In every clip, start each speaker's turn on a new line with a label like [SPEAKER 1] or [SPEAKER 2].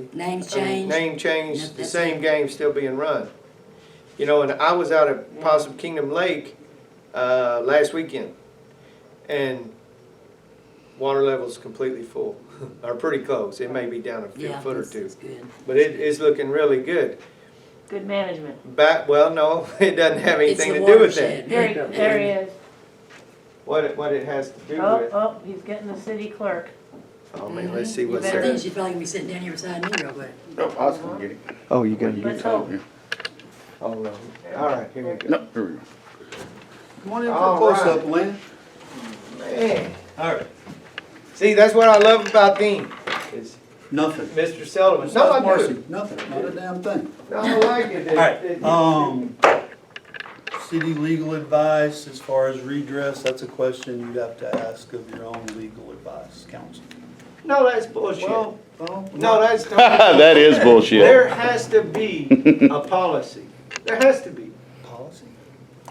[SPEAKER 1] Name
[SPEAKER 2] I mean,
[SPEAKER 1] change.
[SPEAKER 2] name change,
[SPEAKER 1] Yep,
[SPEAKER 2] the
[SPEAKER 1] that's
[SPEAKER 2] same
[SPEAKER 1] it.
[SPEAKER 2] game still being run. You know, and I was out at Possum Kingdom Lake, uh, last weekend, and water level's completely full, or pretty close, it may be down a few
[SPEAKER 1] Yeah,
[SPEAKER 2] foot or
[SPEAKER 1] this
[SPEAKER 2] two.
[SPEAKER 1] is good.
[SPEAKER 2] But it is looking really good.
[SPEAKER 3] Good management.
[SPEAKER 2] Back, well, no, it doesn't have
[SPEAKER 1] It's
[SPEAKER 2] anything
[SPEAKER 1] the
[SPEAKER 2] to do with that.
[SPEAKER 1] watershed.
[SPEAKER 3] There, he- there he is.
[SPEAKER 2] What it, what it has to do
[SPEAKER 3] Oh,
[SPEAKER 2] with,
[SPEAKER 3] oh, he's getting the city clerk.
[SPEAKER 2] oh man, let's see what's
[SPEAKER 3] You
[SPEAKER 1] I
[SPEAKER 2] there.
[SPEAKER 1] think she's probably gonna be sitting down here beside me real quick.
[SPEAKER 4] No, I was gonna get it.
[SPEAKER 5] Oh, you got
[SPEAKER 3] Let's
[SPEAKER 5] it.
[SPEAKER 3] hope.
[SPEAKER 2] Oh, no. All right, here we go.
[SPEAKER 4] No, here we go.
[SPEAKER 6] Come on in for
[SPEAKER 2] All
[SPEAKER 6] a close-up,
[SPEAKER 2] right.
[SPEAKER 6] Lynn.
[SPEAKER 2] Man. All right. See, that's what I love about Dean, is
[SPEAKER 6] Nothing.
[SPEAKER 2] Mr. Sullivan. No,
[SPEAKER 6] Besides
[SPEAKER 2] I do.
[SPEAKER 6] Marcy, nothing, not a damn thing.
[SPEAKER 2] No, I like it. It- it-
[SPEAKER 6] Um, city legal advice as far as redress, that's a question you'd have to ask of your own legal advice counsel.
[SPEAKER 2] No, that's bullshit.
[SPEAKER 6] Well, well,
[SPEAKER 2] No, that's.
[SPEAKER 4] That is bullshit.
[SPEAKER 2] There has to be a policy. There has to be.
[SPEAKER 6] policy.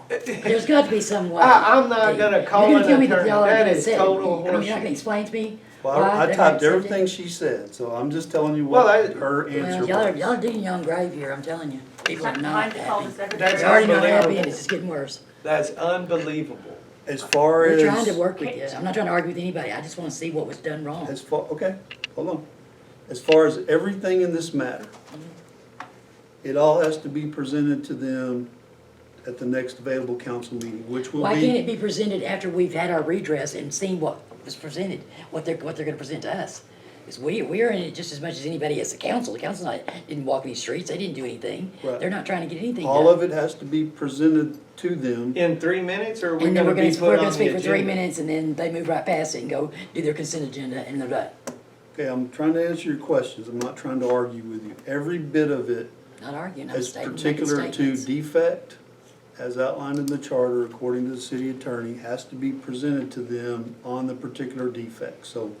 [SPEAKER 1] There's got to be some way.
[SPEAKER 2] I, I'm not gonna call
[SPEAKER 1] You're
[SPEAKER 2] an
[SPEAKER 1] gonna tell me that
[SPEAKER 2] attorney.
[SPEAKER 1] y'all are
[SPEAKER 2] That
[SPEAKER 1] gonna
[SPEAKER 2] is
[SPEAKER 1] say it.
[SPEAKER 2] total
[SPEAKER 1] I mean, y'all can
[SPEAKER 2] horseshit.
[SPEAKER 1] explain to me
[SPEAKER 6] Well,
[SPEAKER 1] why
[SPEAKER 6] I-
[SPEAKER 1] they're
[SPEAKER 6] I typed
[SPEAKER 1] not accepting-
[SPEAKER 6] everything she said, so I'm just telling you
[SPEAKER 2] Well, I-
[SPEAKER 6] what her answer
[SPEAKER 1] Well, y'all are, y'all are
[SPEAKER 6] was.
[SPEAKER 1] digging your own grave here, I'm telling you. People are not
[SPEAKER 3] Mine's called the
[SPEAKER 1] happy.
[SPEAKER 3] secretary.
[SPEAKER 1] They're already not happy and it's just getting worse.
[SPEAKER 2] That's unbelievable.
[SPEAKER 6] As far
[SPEAKER 1] We're trying to
[SPEAKER 6] as,
[SPEAKER 1] work with this. I'm not trying to argue with anybody. I just want to see what was done wrong.
[SPEAKER 6] as far, okay, hold on. As far as everything in this matter, it all has to be presented to them at the next available council meeting, which will
[SPEAKER 1] Why can't it
[SPEAKER 6] be,
[SPEAKER 1] be presented after we've had our redress and seen what was presented, what they're, what they're gonna present to us? Because we, we're in it just as much as anybody as the council. The council not, didn't walk these streets, they didn't do anything.
[SPEAKER 6] Right.
[SPEAKER 1] They're not trying to get anything
[SPEAKER 6] all
[SPEAKER 1] done.
[SPEAKER 6] of it has to be presented to them.
[SPEAKER 2] In three minutes, or are we
[SPEAKER 1] And then
[SPEAKER 2] gonna be
[SPEAKER 1] we're gonna,
[SPEAKER 2] put
[SPEAKER 1] we're
[SPEAKER 2] on
[SPEAKER 1] gonna
[SPEAKER 2] the
[SPEAKER 1] speak for three
[SPEAKER 2] agenda?
[SPEAKER 1] minutes and then they move right past it and go do their consent agenda and they're done.
[SPEAKER 6] Okay, I'm trying to answer your questions, I'm not trying to argue with you. Every bit of it
[SPEAKER 1] Not arguing, I'm
[SPEAKER 6] as
[SPEAKER 1] stating, making
[SPEAKER 6] particular to
[SPEAKER 1] statements.
[SPEAKER 6] defect, as outlined in the charter according to the city attorney, has to be presented to them on the particular defect. So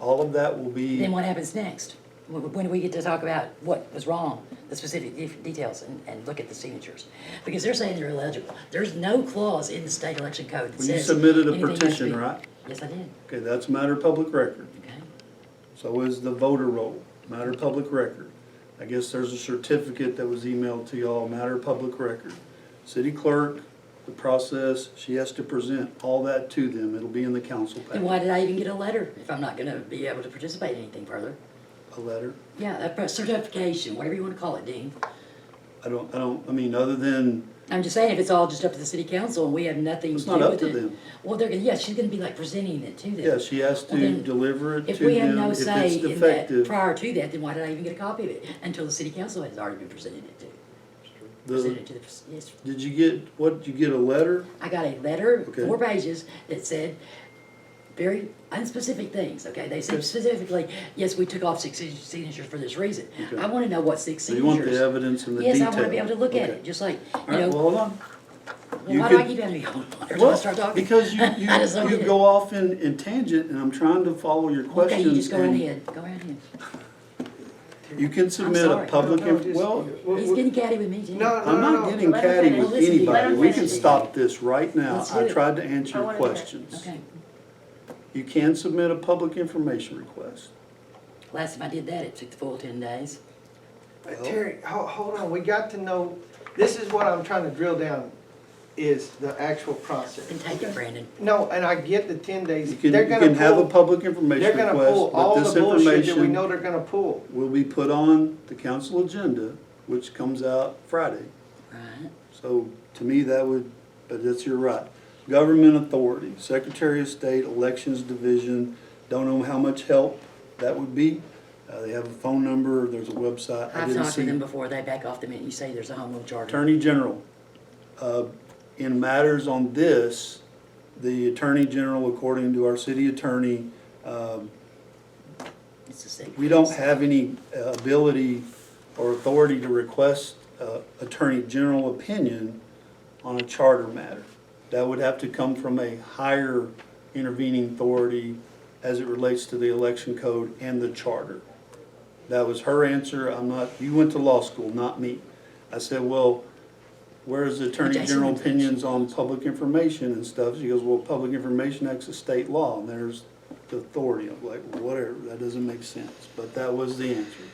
[SPEAKER 6] all of that will be,
[SPEAKER 1] Then what happens next? When when do we get to talk about what was wrong, the specific de- details, and, and look at the signatures? Because they're saying they're illegible. There's no clause in the state election code that
[SPEAKER 6] Well, you
[SPEAKER 1] says.
[SPEAKER 6] submitted a
[SPEAKER 1] anything has to
[SPEAKER 6] petition,
[SPEAKER 1] be-
[SPEAKER 6] right?
[SPEAKER 1] Yes, I did,
[SPEAKER 6] okay, that's a matter of public record.
[SPEAKER 1] okay.
[SPEAKER 6] So is the voter roll, matter of public record. I guess there's a certificate that was emailed to y'all, matter of public record. City clerk, the process, she has to present all that to them. It'll be in the council
[SPEAKER 1] Then
[SPEAKER 6] packet,
[SPEAKER 1] why did I even get a letter if I'm not gonna be able to participate in anything further?
[SPEAKER 6] a letter.
[SPEAKER 1] Yeah, a pre- certification, whatever you wanna call it, Dean.
[SPEAKER 6] I don't, I don't, I mean, other than
[SPEAKER 1] I'm just saying, if it's all just up to the city council and we have nothing to
[SPEAKER 6] It's
[SPEAKER 1] do
[SPEAKER 6] not up
[SPEAKER 1] with
[SPEAKER 6] to
[SPEAKER 1] it.
[SPEAKER 6] them.
[SPEAKER 1] Well, they're, gonna yeah, she's gonna be like presenting it to them.
[SPEAKER 6] Yeah, she has
[SPEAKER 1] Well,
[SPEAKER 6] to
[SPEAKER 1] then,
[SPEAKER 6] deliver it to
[SPEAKER 1] If
[SPEAKER 6] them
[SPEAKER 1] we have no
[SPEAKER 6] if
[SPEAKER 1] say
[SPEAKER 6] it's
[SPEAKER 1] in that
[SPEAKER 6] defective.
[SPEAKER 1] prior to that, then why did I even get a copy of it? Until the city council has already been presented it to, presented
[SPEAKER 6] The-
[SPEAKER 1] it to the, yes.
[SPEAKER 6] Did you get, what, did you get a letter?
[SPEAKER 1] I got a letter,
[SPEAKER 6] Okay.
[SPEAKER 1] four pages, that said very unspecific things, okay? They said specifically, yes, we took off six sig- signatures for this reason. I wanna know what six
[SPEAKER 6] So you
[SPEAKER 1] signatures.
[SPEAKER 6] want the evidence and the detail?
[SPEAKER 1] Yes, I wanna be able to look at
[SPEAKER 6] Okay.
[SPEAKER 1] it, just like,
[SPEAKER 6] All
[SPEAKER 1] you
[SPEAKER 6] right,
[SPEAKER 1] know,
[SPEAKER 6] well,
[SPEAKER 1] well,
[SPEAKER 6] hold on. you
[SPEAKER 1] why do I
[SPEAKER 6] could-
[SPEAKER 1] keep having to go on? Every time I start
[SPEAKER 6] Well,
[SPEAKER 1] talking?
[SPEAKER 6] because you,
[SPEAKER 1] I just don't
[SPEAKER 6] you, you
[SPEAKER 1] get it.
[SPEAKER 6] go off in, in tangent and I'm trying to follow your
[SPEAKER 1] Okay,
[SPEAKER 6] questions.
[SPEAKER 1] you just go right
[SPEAKER 6] and
[SPEAKER 1] ahead, go right ahead.
[SPEAKER 6] You can submit a
[SPEAKER 1] sorry.
[SPEAKER 6] public,
[SPEAKER 2] No,
[SPEAKER 6] inf-
[SPEAKER 2] just-
[SPEAKER 6] well,
[SPEAKER 2] we-
[SPEAKER 1] He's
[SPEAKER 2] we-
[SPEAKER 1] getting catty with me, Jim.
[SPEAKER 2] No, no,
[SPEAKER 6] I'm
[SPEAKER 2] no,
[SPEAKER 6] not
[SPEAKER 2] no.
[SPEAKER 6] getting
[SPEAKER 3] Let her
[SPEAKER 6] catty
[SPEAKER 3] finish.
[SPEAKER 6] with
[SPEAKER 1] Listen to you. Let her
[SPEAKER 6] anybody. We can
[SPEAKER 3] finish.
[SPEAKER 6] stop this right now.
[SPEAKER 1] Let's do
[SPEAKER 6] I
[SPEAKER 1] it.
[SPEAKER 6] tried to
[SPEAKER 3] I
[SPEAKER 6] answer your
[SPEAKER 3] wanna do it.
[SPEAKER 6] questions.
[SPEAKER 1] Okay,
[SPEAKER 6] You can submit a public information request.
[SPEAKER 1] last time I did that, it took the full ten days.
[SPEAKER 2] But Terry, ho- hold on, we got to know, this is what I'm trying to drill down, is the actual process.
[SPEAKER 1] Then take it, Brandon.
[SPEAKER 2] No, and I get the ten days,
[SPEAKER 6] You can,
[SPEAKER 2] they're
[SPEAKER 6] you
[SPEAKER 2] gonna
[SPEAKER 6] can have a
[SPEAKER 2] pull,
[SPEAKER 6] public
[SPEAKER 2] they're
[SPEAKER 6] information
[SPEAKER 2] gonna pull
[SPEAKER 6] request,
[SPEAKER 2] all
[SPEAKER 6] but
[SPEAKER 2] the
[SPEAKER 6] this
[SPEAKER 2] bullshit that we
[SPEAKER 6] information
[SPEAKER 2] know they're gonna pull.
[SPEAKER 6] will be put on the council agenda, which comes out Friday.
[SPEAKER 1] Right.
[SPEAKER 6] So to me, that would, but that's your right. Government authority, Secretary of State, Elections Division, don't know how much help that would be. Uh, they have a phone number, there's a website. I
[SPEAKER 1] I've
[SPEAKER 6] didn't
[SPEAKER 1] talked to
[SPEAKER 6] see.
[SPEAKER 1] them before, they back off the minute you say there's a home rule charter.
[SPEAKER 6] Attorney General, uh, in matters on this, the Attorney General, according to our city attorney, um,
[SPEAKER 1] It's a secret.
[SPEAKER 6] We don't have any uh, ability or authority to request uh, Attorney General opinion on a charter matter. That would have to come from a higher intervening authority as it relates to the election code and the charter. That was her answer. I'm not, you went to law school, not me. I said, well, where's the Attorney
[SPEAKER 1] Jason
[SPEAKER 6] General
[SPEAKER 1] went to law
[SPEAKER 6] opinions on public information and stuff? She goes, well, Public Information Act's a state law, and there's the authority. I'm like, whatever, that doesn't make sense. But that was the answer.